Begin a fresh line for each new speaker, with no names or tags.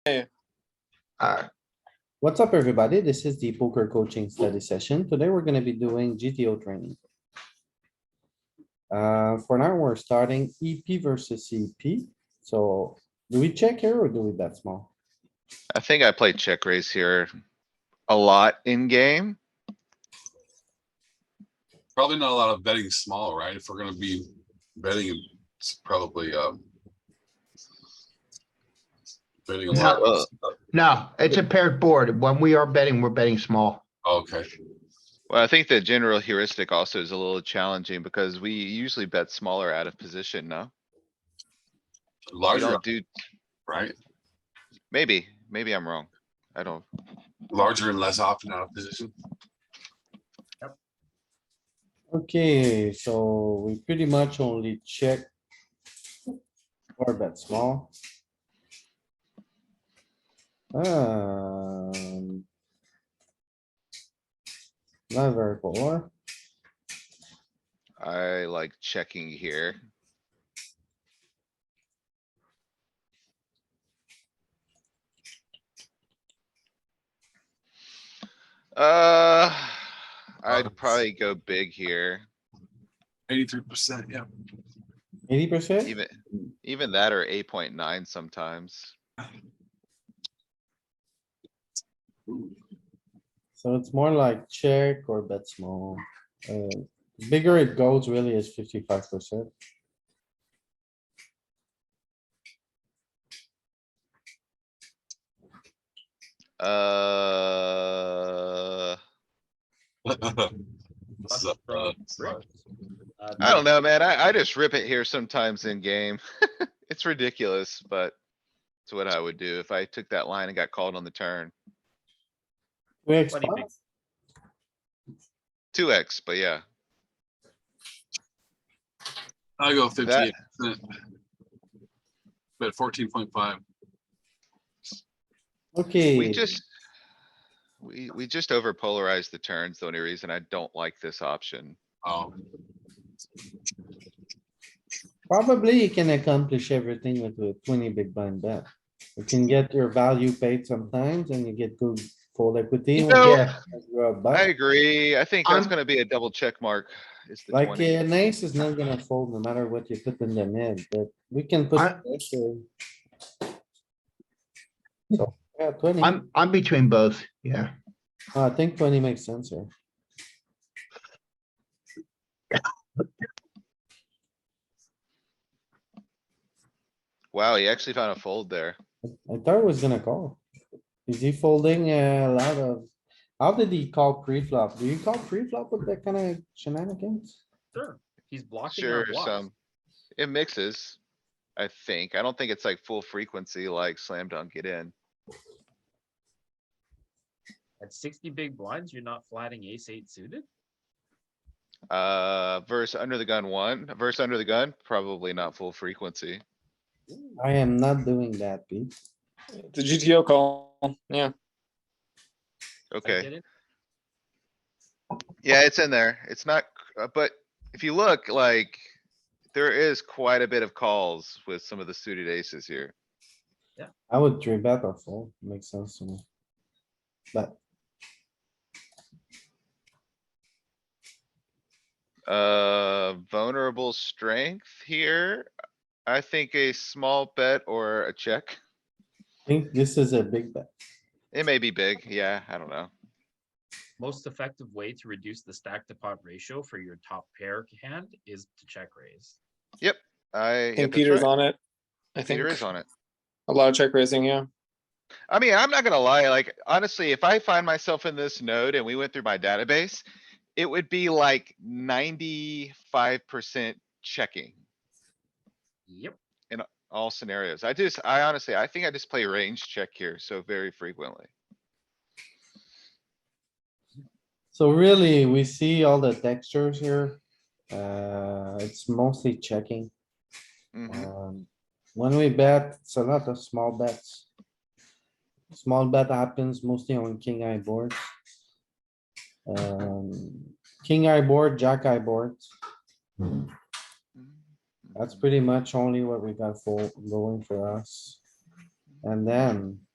Hey.
Alright,
What's up, everybody? This is the poker coaching study session. Today, we're gonna be doing GTO training. Uh, for now, we're starting EP versus CP. So do we check here or do we bet small?
I think I play check raise here a lot in game.
Probably not a lot of betting small, right? If we're gonna be betting, it's probably, um. Betting a
Not, uh,
lot.
No, it's a paired board. When we are betting, we're betting small.
Oh, Okay,
Well, I think the general heuristic also is a little challenging because we usually bet smaller out of position, no? We
larger,
don't do,
right?
maybe, maybe I'm wrong. I don't,
Larger and less often out of position.
Okay, so we pretty much only check. Or bet small. Um. Not very polar.
I like checking here. Uh, I'd
Lots.
probably go big here,
Eighty-three percent, yeah.
Eighty percent?
even, even that or eight point nine sometimes.
So it's more like check or bet small. Uh, Bigger it goes really is fifty-five percent.
Uh,
This is a, uh, smart.
I don't know, man. I, I just rip it here sometimes in game. It's ridiculous, but it's what I would do if I took that line and got called on the turn.
We
What do you
expect,
think?
Two X, but yeah.
I go fifty-eight percent. Bet fourteen point five.
We
okay,
just. We, we just over polarized the turns. The only reason I don't like this option.
Oh,
probably you can accomplish everything with a twenty big blind bet. You can get your value paid sometimes and you get good full equity.
You
when
know,
Yeah,
you're a
I
buy.
agree. I think that's
I'm-
gonna be a double check mark. is the
Like
20.
an ace is not gonna fold no matter what you put in the net, but we can put.
I-
pressure. So, Yeah, twenty,
I'm, I'm between both. Yeah.
I think twenty makes sense here.
Wow, he actually found a fold there.
I thought it was gonna call. Is he folding uh, a lot of, how did he call pre-flop? Do you call pre-flop with that kind of shenanigans?
Sure, he's blocking
Sure,
our blocks.
some. It mixes. I think. I don't think it's like full frequency like slam dunk it in.
At sixty big blinds, you're not flatting ace eight suited?
Uh, verse under the gun one, verse under the gun, probably not full frequency.
I am not doing that, Pete.
The GTO call, yeah.
I get
Okay,
it.
yeah, it's in there. It's not, c- uh, but if you look like. There is quite a bit of calls with some of the suited aces here.
I would three bet or fold, makes sense to me. But
Uh, vulnerable strength here. I think a small bet or a check.
I think this is a big bet.
It may be big. Yeah, I don't know.
Most effective way to reduce the stack to pot ratio for your top pair hand is to check raise.
I.
I
yeah,
think
that's
Peter's
right.
on it. I think
Peter is on it.
a lot of check raising, yeah.
I mean, I'm not gonna lie, like, honestly, if I find myself in this node and we went through my database, it would be like ninety-five percent checking
Yep,
all scenarios. I just, I honestly, I think I just play range check here so very frequently.
So really, we see all the textures here. Uh, it's mostly checking.
Mhm.
Um, When we bet, it's a lot of small bets. Small bet happens mostly on king eye board. Um, king eye board, jack eye board, that's pretty much only what we got for going for us. And then